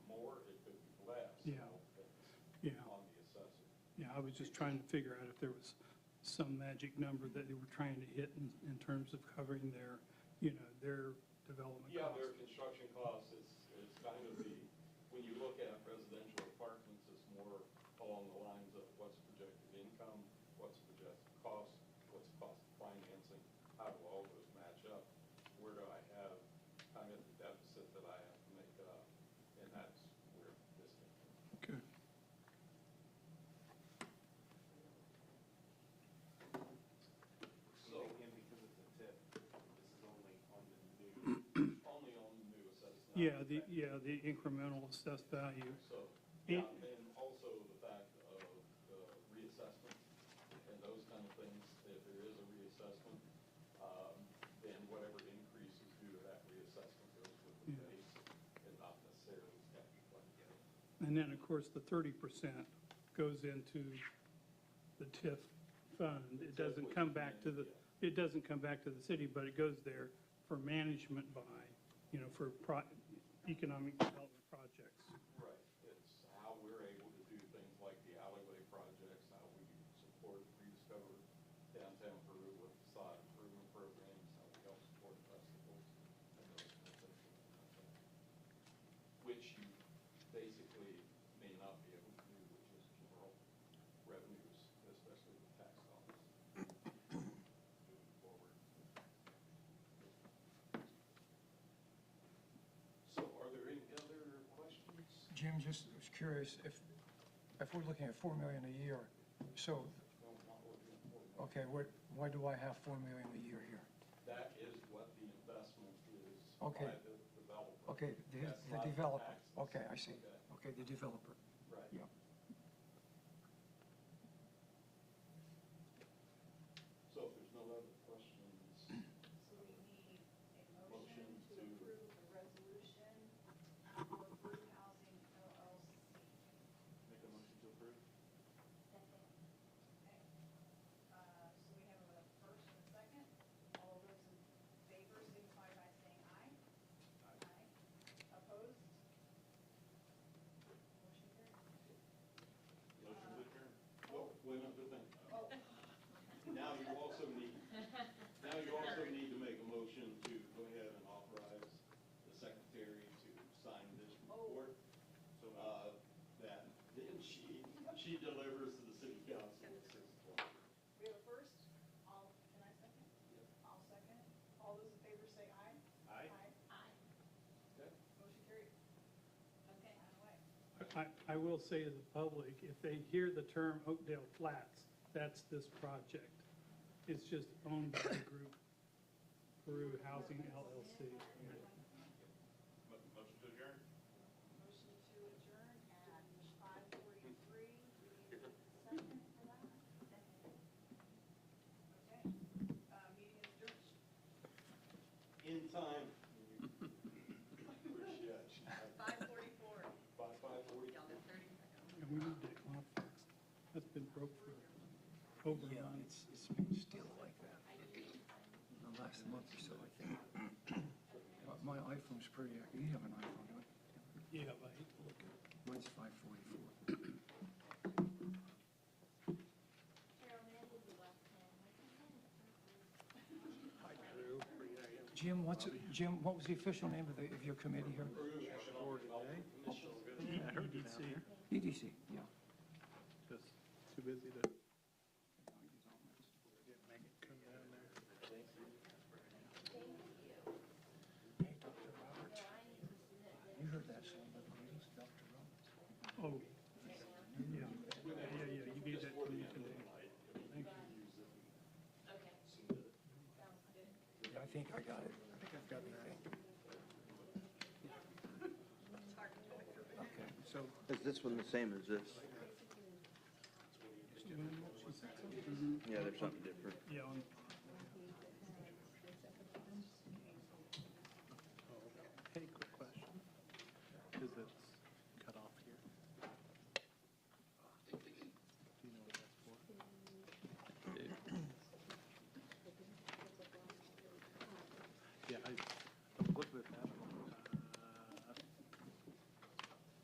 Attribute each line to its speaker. Speaker 1: was just trying to figure out if there was some magic number that they were trying to hit in, in terms of covering their, you know, their development
Speaker 2: Yeah,
Speaker 1: costs.
Speaker 2: their construction costs is, is kind of the, when you look at residential apartments, it's more along the lines of what's projected income, what's projected cost, what's the cost of financing, how do all those match up? Where do I have kind of the deficit that I have to make up? And that's where this came from.
Speaker 1: Okay.
Speaker 2: So,
Speaker 3: Again, because of the tip, this is only on the new,
Speaker 2: only on the new assessment.
Speaker 1: Yeah, the, yeah, the incremental assessed value.
Speaker 2: So,
Speaker 1: Yeah.
Speaker 2: yeah, and also the fact of uh, reassessment and those kind of things, if there is a reassessment, um, then whatever increase is due to that reassessment goes with the
Speaker 1: Yeah.
Speaker 2: base and not necessarily stepping like that.
Speaker 1: And then, of course, the thirty percent goes into the TIF fund. It doesn't come back to the, it doesn't come back to the city, but it goes there for management by, you know, for pro, economic development projects.
Speaker 2: Right, it's how we're able to do things like the alleyway projects, how we support rediscover downtown Peru with facade improvement programs, how we help support festivals and those kind of things. Which you basically may not be able to do, which is general revenues, especially with tax dollars. Moving forward. So are there any other questions?
Speaker 4: Jim, just was curious, if, if we're looking at four million a year, so,
Speaker 2: No, not looking for that.
Speaker 4: okay, what, why do I have four million a year here?
Speaker 2: That is what the investment is by
Speaker 4: Okay.
Speaker 2: the developer.
Speaker 4: Okay, the,
Speaker 2: That's not
Speaker 4: the developer,
Speaker 2: taxes.
Speaker 4: okay, I see,
Speaker 2: Okay,
Speaker 4: okay, the developer,
Speaker 2: Right.
Speaker 4: yeah.
Speaker 2: So if there's no other questions,
Speaker 5: So we need a
Speaker 2: Motion
Speaker 5: motion to
Speaker 2: to-
Speaker 5: approve the resolution for Brew Housing LLC.
Speaker 2: make a motion to approve?
Speaker 5: Okay. Uh, So we have a first and a second. All those in favor signify by saying aye. Aye. Opposed? Motion carries.
Speaker 2: Motion to adjourn? Well, wait another thing.
Speaker 5: Oh,
Speaker 2: Now you also need, now you also need to make a motion to go ahead and authorize the secretary to sign this report. So, uh, that, then she, she delivers to the city council at six o'clock.
Speaker 5: we have a first. All, can I second?
Speaker 2: Yep.
Speaker 5: I'll second. All those in favor say aye.
Speaker 2: Aye?
Speaker 5: Aye.
Speaker 2: Okay.
Speaker 5: Motion carries. Okay. Aye.
Speaker 1: I, I will say to the public, if they hear the term Oakdale Flats, that's this project. It's just owned by the group Peru Housing LLC.
Speaker 2: Motion to adjourn?
Speaker 5: Motion to adjourn at five forty-three. Second for that? Okay, uh, meeting is adjourned.
Speaker 2: In time. We're shut.
Speaker 5: Five forty-four.
Speaker 2: By five forty.
Speaker 1: And we need that complex. That's been broke for over a
Speaker 4: Yeah,
Speaker 1: month.
Speaker 4: it's, it's been still like that in the last month or so, I think. But My iPhone's pretty accurate, you have an iPhone, don't you?
Speaker 1: Yeah, but I hate to look at
Speaker 4: Mine's five forty-four.
Speaker 6: Carol, that will be left hand.
Speaker 4: Jim, what's, it- Jim, what was the official name of the, of your committee here? EDC, E yeah.
Speaker 1: this. Too busy to.
Speaker 4: Hey, Dr. Roberts, you heard that song, but it's Dr. Roberts.
Speaker 1: Oh, yeah, yeah, yeah, you need that to me today. Thank you.
Speaker 6: Okay. Sounds good.
Speaker 4: Yeah, I think I got it. I think I've got it. Okay, so
Speaker 7: Is this one the same as this? Yeah, there's something different.
Speaker 1: Yeah, on uh,